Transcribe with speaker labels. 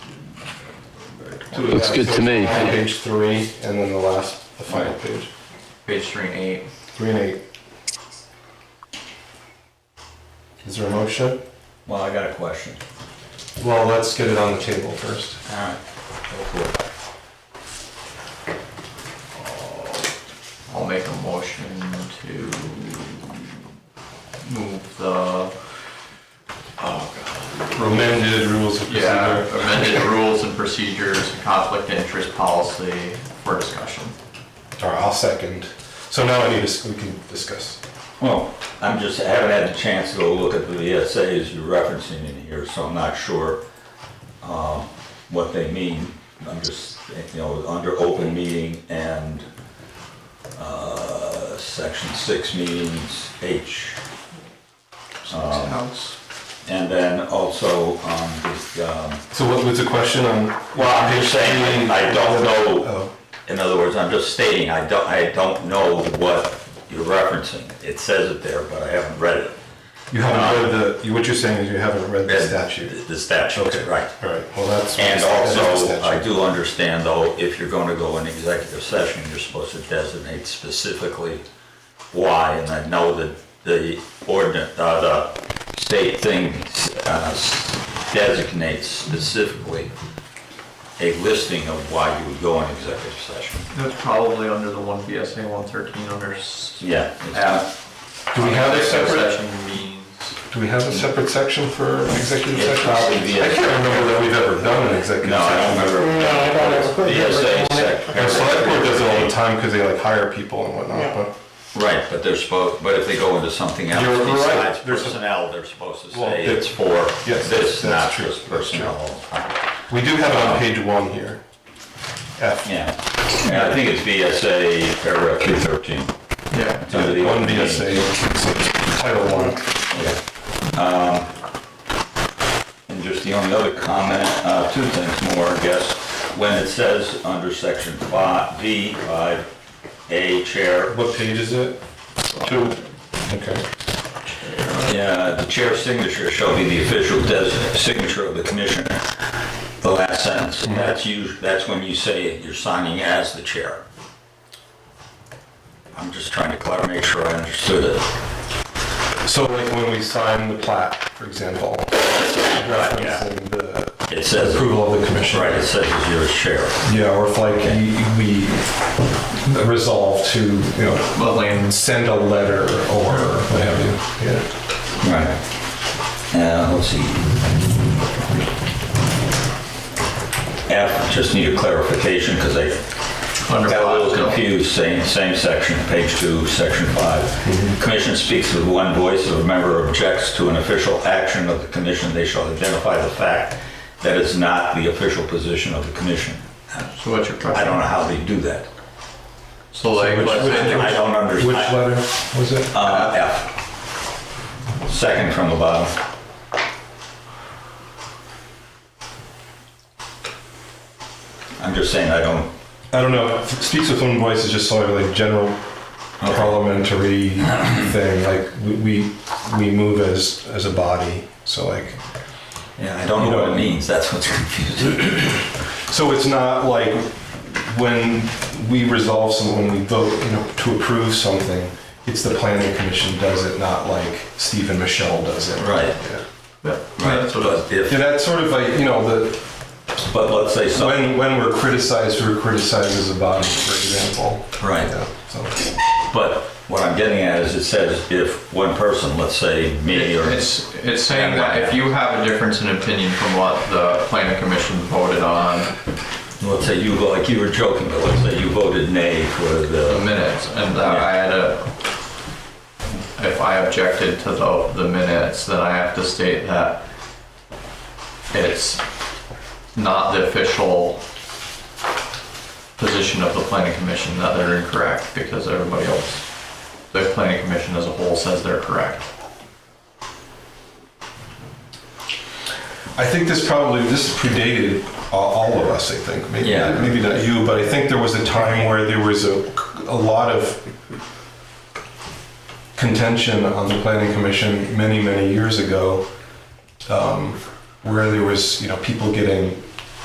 Speaker 1: two.
Speaker 2: Looks
Speaker 1: yeah,
Speaker 2: good
Speaker 1: so
Speaker 2: to me.
Speaker 1: Page three, and then the last, the final page,
Speaker 3: Page three and eight.
Speaker 1: three and eight. Is there a motion?
Speaker 4: Well, I got a question.
Speaker 1: Well, let's get it on the table first.
Speaker 3: All right. Uh, I'll make a motion to move the,
Speaker 1: Amended rules of
Speaker 3: yeah,
Speaker 1: procedure.
Speaker 3: amended rules and procedures, conflict interest policy for discussion.
Speaker 1: All right, I'll second. So now I need to, we can discuss.
Speaker 4: Well, I'm just, I haven't had a chance to go look at the essays you're referencing in here, so I'm not sure um, what they mean. I'm just, you know, under open meeting and uh, section six meetings H. Um,
Speaker 3: House.
Speaker 4: And then also, um, this, um,
Speaker 1: So what was the question on?
Speaker 4: well, I'm just saying, I don't know,
Speaker 1: Oh.
Speaker 4: in other words, I'm just stating, I don't, I don't know what you're referencing. It says it there, but I haven't read it.
Speaker 1: You haven't read the, you- what you're saying is you haven't read the
Speaker 4: Yeah,
Speaker 1: statute.
Speaker 4: The statute,
Speaker 1: Okay.
Speaker 4: right.
Speaker 1: All right, well, that's.
Speaker 4: And
Speaker 1: that's the
Speaker 4: also,
Speaker 1: statute.
Speaker 4: I do understand though, if you're gonna go in executive session, you're supposed to designate specifically why, and I know that the ordinance, uh, the state thing, uh, designates specifically a listing of why you would go in executive session.
Speaker 3: That's probably under the one BSA one thirteen under. s-
Speaker 4: Yeah.
Speaker 3: app.
Speaker 1: Do we have a separate,
Speaker 3: Session means.
Speaker 1: do we have a separate section for executive
Speaker 4: It's
Speaker 1: session?
Speaker 4: probably the-
Speaker 1: I can't remember that we've ever done an executive
Speaker 4: No, I don't
Speaker 1: session.
Speaker 4: remember.
Speaker 5: No, I don't ever-
Speaker 4: The essay
Speaker 1: Our select board does it all the
Speaker 4: sec.
Speaker 1: time because they like hire people and whatnot,
Speaker 5: Yeah.
Speaker 1: but.
Speaker 4: Right, but they're supposed, but if they go into something else
Speaker 1: You're right.
Speaker 4: besides
Speaker 1: There's a-
Speaker 4: personnel, they're supposed to
Speaker 1: Well,
Speaker 4: say
Speaker 1: that-
Speaker 4: it's for
Speaker 1: Yes,
Speaker 4: this,
Speaker 1: that's
Speaker 4: not
Speaker 1: true.
Speaker 4: just
Speaker 1: That's true.
Speaker 4: personnel. all the time.
Speaker 1: We do have it on page one here. F.
Speaker 4: Yeah, Yeah, I think it's VSA paragraph two thirteen.
Speaker 3: Yeah.
Speaker 1: One BSA, title one.
Speaker 4: Um, And just the only other comment, uh, two things more, I guess. When it says under section five, V, five, A, chair,
Speaker 1: What page is it? Two. Okay.
Speaker 4: Yeah, the chair's signature shall be the official des- signature of the commissioner. The last sentence, that's you, that's when you say you're signing as the chair. I'm just trying to clar- make sure I understood it.
Speaker 1: So like when we sign the plat, for example, referencing the
Speaker 4: It says.
Speaker 1: approval of the commission.
Speaker 4: Right, it says it's yours, chair.
Speaker 1: Yeah, or if like we we resolve to, you know,
Speaker 3: But land
Speaker 1: send a letter or what have you. Yeah.
Speaker 4: Right. Uh, let's see. F, just need a clarification, because I
Speaker 3: under.
Speaker 4: Got a
Speaker 3: five,
Speaker 4: little
Speaker 3: no.
Speaker 4: confused, same, same section, page two, section five. Commission speaks with one voice, if a member objects to an official action of the commission, they shall identify the fact that it's not the official position of the commission.
Speaker 3: So what's your question?
Speaker 4: I don't know how they do that.
Speaker 3: So like, let's say
Speaker 4: I
Speaker 3: there's-
Speaker 4: don't
Speaker 1: Which
Speaker 4: understand.
Speaker 1: letter was it?
Speaker 4: Uh, F. Second from the bottom. I'm just saying, I don't,
Speaker 1: I don't know. Speaks with one voice is just sort of like general parliamentary thing. Like we we we move as as a body. So like
Speaker 4: yeah, I don't know what it means, that's what's confusing.
Speaker 1: So it's not like when we resolve some, when we vote, you know, to approve something, it's the planning commission does it, not like Steve and Michelle does it.
Speaker 4: Right.
Speaker 1: Yeah.
Speaker 3: Yeah,
Speaker 4: Right,
Speaker 3: that's what I was-
Speaker 4: but if
Speaker 1: Yeah, that's sort of like, you know, the,
Speaker 4: But let's say
Speaker 1: when,
Speaker 4: something,
Speaker 1: when we're criticized, we're criticized as a body, for example.
Speaker 4: Right.
Speaker 1: Yeah, so.
Speaker 4: but what I'm getting at is it says if one person, let's say me or,
Speaker 3: It's, it's saying that if you have a difference in opinion from what the planning commission voted on
Speaker 4: let's say you, like you were joking, but let's say you voted nay for
Speaker 3: the
Speaker 4: the,
Speaker 3: minutes, and that I had a, if I objected to the, the minutes, then I have to state that it's not the official position of the planning commission that they're incorrect, because everybody else, the planning commission as a whole says they're correct.
Speaker 1: I think this probably, this predated a- all of us, I think. Maybe,
Speaker 4: Yeah.
Speaker 1: maybe not you, but I think there was a time where there was a, a lot of contention on the planning commission many, many years ago, um, where there was, you know, people getting